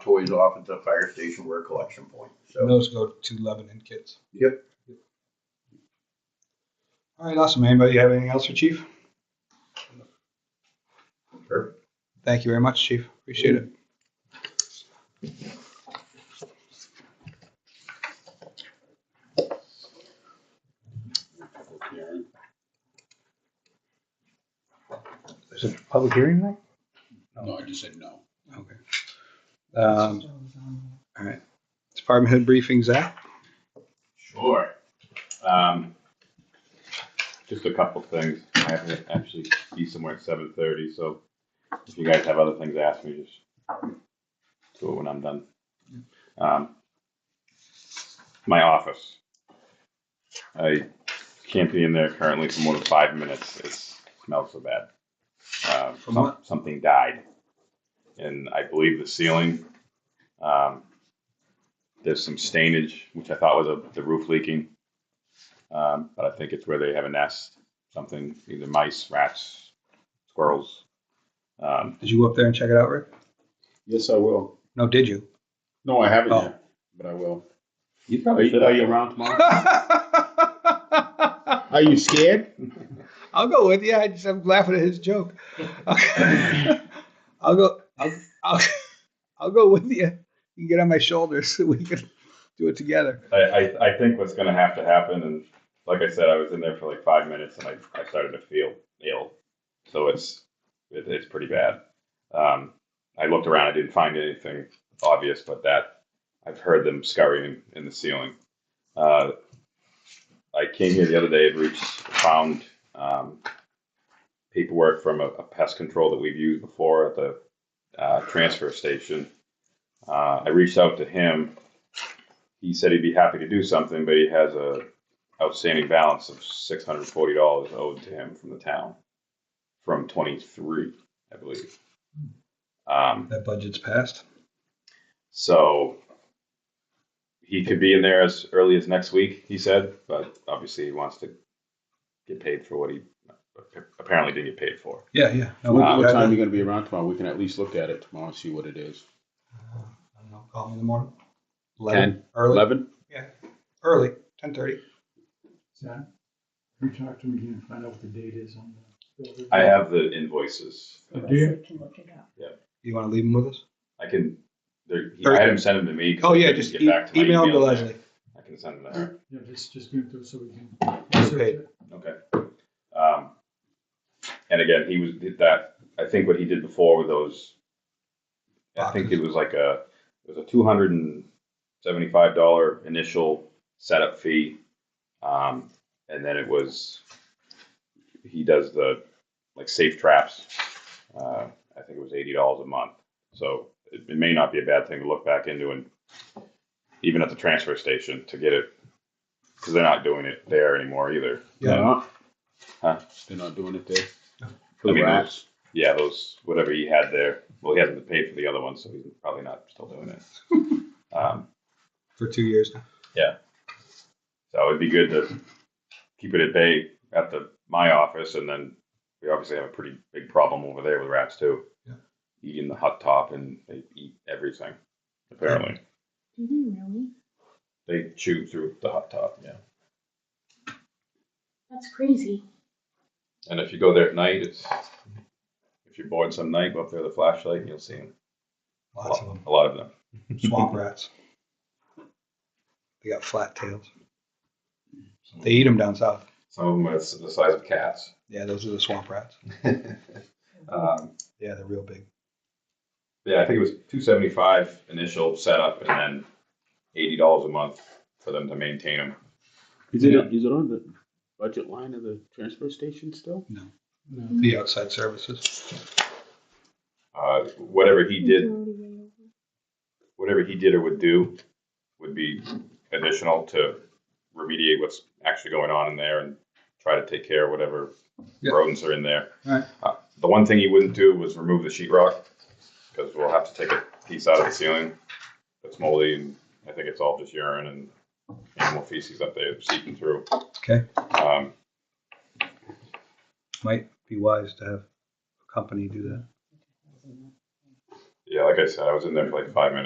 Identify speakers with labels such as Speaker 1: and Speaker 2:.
Speaker 1: toys off at the fire station where a collection point.
Speaker 2: And
Speaker 1: So
Speaker 2: those go to Lebanon kids.
Speaker 1: Yep.
Speaker 2: All right, awesome. Anybody have anything else for Chief?
Speaker 1: Sure.
Speaker 2: Thank you very much, Chief. Appreciate it. There's a public hearing tonight?
Speaker 3: No, I just said no.
Speaker 2: Okay. Um, all right. Department head briefing, Zach?
Speaker 4: Sure. Um, just a couple things. I have to actually be somewhere at seven thirty, so if you guys have other things to ask me, just do it when I'm done. Um, my office. I can't be in there currently for more than five minutes. It smells so bad. Uh,
Speaker 2: From
Speaker 4: some-
Speaker 2: what?
Speaker 4: Something died, and I believe the ceiling. Um, there's some stainage, which I thought was a, the roof leaking. Um, but I think it's where they have a nest, something, either mice, rats, squirrels. Um,
Speaker 2: Did you go up there and check it out, Rick?
Speaker 3: Yes, I will.
Speaker 2: No, did you?
Speaker 3: No, I haven't
Speaker 2: Oh.
Speaker 3: yet, but I will.
Speaker 4: you
Speaker 3: Are you-
Speaker 4: are you around tomorrow?
Speaker 2: I'll
Speaker 3: Are you scared?
Speaker 2: go with you. I just, I'm laughing at his joke. I'll go. I'll, I'll, I'll go with you. You can get on my shoulders so we can do it together.
Speaker 4: I, I, I think what's going to have to happen, and like I said, I was in there for like five minutes and I, I started to feel ill. So it's it, it's pretty bad. Um, I looked around, I didn't find anything obvious, but that I've heard them scurrying in the ceiling. Uh, I came here the other day and reached, found um, paperwork from a, a pest control that we've used before at the uh, transfer station. Uh, I reached out to him he said he'd be happy to do something, but he has a outstanding balance of six hundred forty dollars owed to him from the town from twenty three, I believe. Um,
Speaker 2: That budget's passed.
Speaker 4: so he could be in there as early as next week, he said, but obviously he wants to get paid for what he apparently didn't get paid for.
Speaker 2: Yeah, yeah. No, we-
Speaker 3: What what
Speaker 2: we-
Speaker 3: time are you gonna be around tomorrow? We can at least look at it tomorrow and see what it is.
Speaker 2: Uh, I don't know. Call me in the morning.
Speaker 3: 10,
Speaker 2: Early.
Speaker 3: Eleven?
Speaker 2: Early. Ten thirty.
Speaker 5: Zach, you talk to him again, find out what the date is on the.
Speaker 4: I have the invoices.
Speaker 5: Oh, do you?
Speaker 6: Can look it up.
Speaker 2: You want to leave him with us?
Speaker 4: I can. There, he, I had him send them to me. 'cause
Speaker 2: Oh
Speaker 4: I
Speaker 2: yeah,
Speaker 4: couldn't
Speaker 2: just
Speaker 4: get
Speaker 2: e-
Speaker 4: back my
Speaker 2: email him to
Speaker 4: email.
Speaker 2: Leslie.
Speaker 4: I can send them to her.
Speaker 5: Yeah, just, just bring it through so we can.
Speaker 2: Okay.
Speaker 4: Okay. Um, and again, he was did that. I think what he did before with those, I think it was like a it was a two hundred and seventy five dollar initial setup fee, um, and then it was he does the like safe traps. Uh, I think it was eighty dollars a month. So it, it may not be a bad thing to look back into, and even at the transfer station to get it because they're not doing it there anymore either.
Speaker 2: Yeah.
Speaker 3: They're not?
Speaker 4: Huh?
Speaker 3: They're not doing it there?
Speaker 2: No.
Speaker 3: For
Speaker 4: I
Speaker 3: the
Speaker 4: mean,
Speaker 3: rats?
Speaker 4: Yeah, those whatever he had there. Well, he hasn't paid for the other one, so he's probably not still doing it. um,
Speaker 2: for two years now.
Speaker 4: so it'd be good to keep it at bay at the my office, and then we obviously have a pretty big problem over there with rats too,
Speaker 2: Yeah.
Speaker 4: eating the hot top, and they eat everything. Apparently,
Speaker 6: Do they Mm-hmm, really?
Speaker 4: they chew through the hot top. Yeah,
Speaker 6: That's crazy.
Speaker 4: and if you go there at night, it's if you're bored some night, go up there with a flashlight, and you'll see them.
Speaker 2: Lots of them.
Speaker 4: A lot of them.
Speaker 2: Swamp rats. They got flat tails. They eat them down south.
Speaker 4: Some of them are the size of cats.
Speaker 2: Yeah, those are the swamp rats.
Speaker 4: um,
Speaker 2: Yeah, they're real big.
Speaker 4: Yeah, I think it was two seventy five initial setup, and then eighty dollars a month for them to maintain them.
Speaker 3: Is it, is it on the budget line of the transfer station still?
Speaker 2: The outside services.
Speaker 4: Uh, whatever he did,
Speaker 6: Majority of-
Speaker 4: whatever he did or would do, would be additional to remediate what's actually going on in there and try to take care of whatever
Speaker 2: Yeah.
Speaker 4: rodents are in there.
Speaker 2: Right.
Speaker 4: Uh, the one thing he wouldn't do was remove the sheetrock because we'll have to take a piece out of the ceiling that's moldy, and I think it's all just urine and animal feces up there seeping through.
Speaker 2: Okay.
Speaker 4: Um,
Speaker 2: Might be wise to have a company do that.
Speaker 4: Yeah, like I said, I was in there for like five minutes.